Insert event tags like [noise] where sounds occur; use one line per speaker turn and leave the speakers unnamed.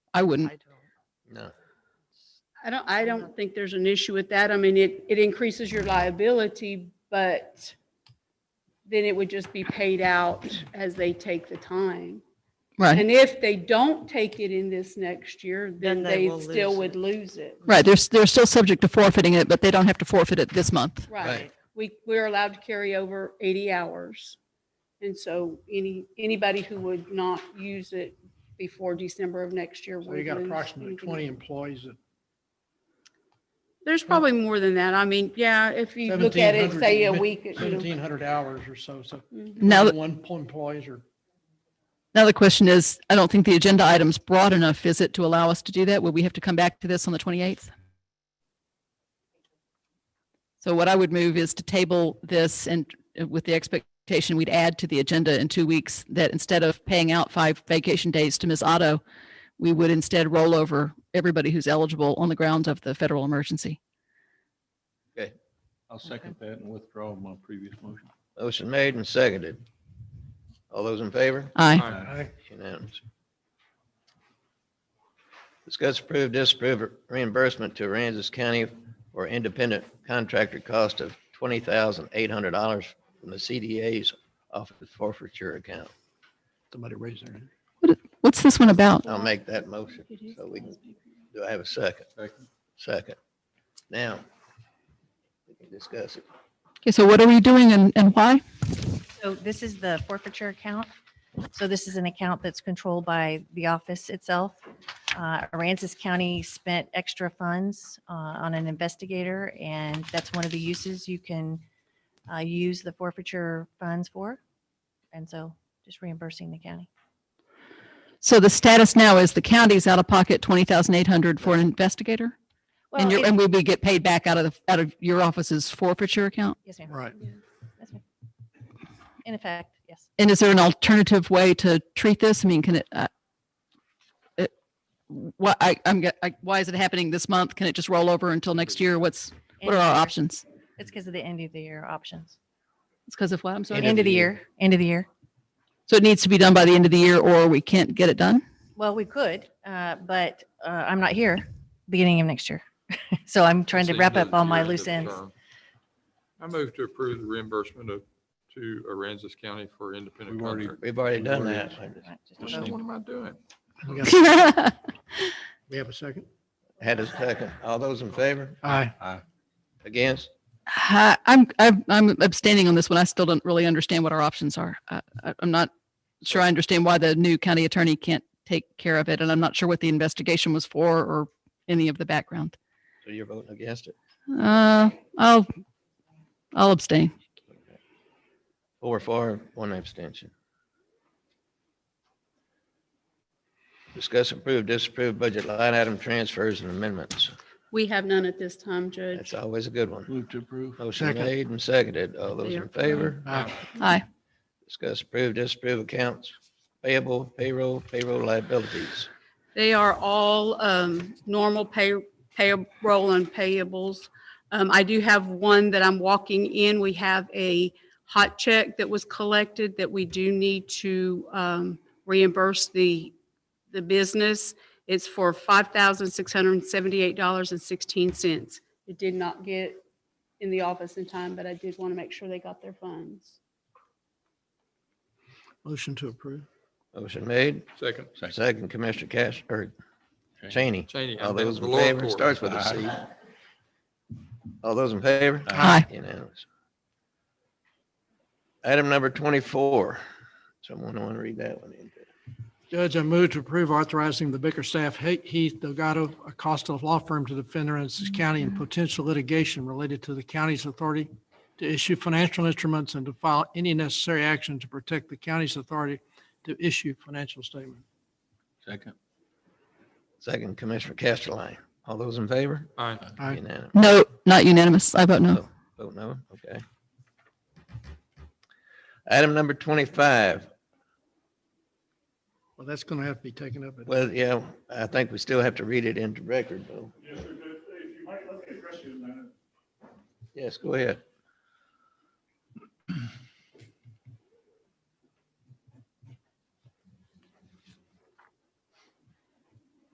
I wouldn't.
No.
I don't, I don't think there's an issue with that. I mean, it, it increases your liability, but then it would just be paid out as they take the time.
Right,
And if they don't take it in this next year,
Then
then
they
they
will
still
lose
would
it.
lose it.
right. They're, s- they're still subject to forfeiting it, but they don't have to forfeit it this month.
Right.
Right.
We, we're allowed to carry over 80 hours. And so any, anybody who would not use it before December of next year
So
would
you got
lose
approximately
anything.
twenty employees that
There's probably more than that. I mean, yeah, if you look at it,
1,700
say a
mid-
week. you know.
1,700 hours or so, so
Mhm.
Now, th-
one employees are,
now the question is, I don't think the agenda item's broad enough, is it, to allow us to do that? Would we have to come back to this on the 28th? So what I would move is to table this and uh, with the expectation we'd add to the agenda in two weeks that instead of paying out five vacation days to Ms. Otto, we would instead roll over everybody who's eligible on the grounds of the federal emergency.
I'll second that and withdraw my previous motion.
Motion made and seconded. All those in favor?
Aye.
Unanimous. Discuss approve, disapprove reimbursement to Aransas County for independent contractor cost of twenty thousand eight hundred dollars from the CDA's office forfeiture account.
somebody raised their hand.
What's this one about?
I'll make that motion. So we can, do I have a second?
Second.
Second. Now, we can discuss it.
Okay, so what are we doing and, and why?
So this is the forfeiture account. So this is an account that's controlled by the office itself. Uh, Aransas County spent extra funds uh, on an investigator, and that's one of the uses you can uh, use the forfeiture funds for. And so just reimbursing the county.
So the status now is the county's out of pocket twenty thousand eight hundred for an investigator?
Well,
And you're,
it-
and we would get paid back out of the, out of your office's forfeiture account?
Yes, ma'am.
Right.
Yes, ma'am. In effect, yes.
And is there an alternative way to treat this? I mean, can it, uh, it- why, I, I'm, ge- I- why is it happening this month? Can it just roll over until next year? What's, what
End
are
of
our
the year.
options?
It's because of the end of the year options.
It's because of what? I'm sorry.
End of the year, end of the year.
So it needs to be done by the end of the year or we can't get it done?
Well, we could, uh, but uh, I'm not here beginning of next year. [laughs] So I'm trying to
It's the
wrap
end of
up
the
all
year,
my
end of
loose
the
ends.
term. I move to approve the reimbursement of, to Aransas County for independent
We've already-
contractor.
We've already done that.
Right, just
What
another
the-
one.
what am I doing?
We got-
Thank
we have a second?
Had a second. All those in favor?
Aye.
Against?
Hi, I'm, I'm I'm abstaining on this one. I still don't really understand what our options are. I- I- I'm not sure I understand why the new county attorney can't take care of it, and I'm not sure what the investigation was for or any of the background.
So you're voting against it?
Uh, I'll, I'll abstain.
Four, four, one abstention. Discuss approve, disapprove budget line item transfers and amendments.
We have none at this time, Judge.
That's always a good one.
Move to approve.
Motion
Second.
made and seconded. All those in favor?
Aye.
Aye.
Discuss approve, disapprove accounts payable, payroll, payroll liabilities.
They are all um, normal pay, payroll and payables. Um, I do have one that I'm walking in. We have a hot check that was collected that we do need to um, reimburse the, the business. It's for $5,678.16. It did not get in the office in time, but I did want to make sure they got their funds.
Motion to approve.
Motion made,
Second.
second Commissioner Cash, or Cheney.
Cheney. Cheney. I'm
All
down
those
to the
in
lower
favor,
court.
starts with a C. All those in favor?
Aye.
Unanimous. Item number twenty-four. Someone want to read that one in?
Judge, I move to approve authorizing the Bickerstaff He- Heath Delgado Acosta Law Firm to defend Aransas County in potential litigation related to the county's authority to issue financial instruments and to file any necessary action to protect the county's authority to issue financial statements.
Second.
Second Commissioner Castellane. All those in favor?
Aye.
Aye.
Unanimous.
No, not unanimous. I vote no.
Vote- Vote no, okay. Item number twenty-five.
Well, that's going to have to be taken up. at-
Well, yeah, I think we still have to read it into record, though.
Yes, sir, but if you might, let me address you in a minute.
Yes, go ahead.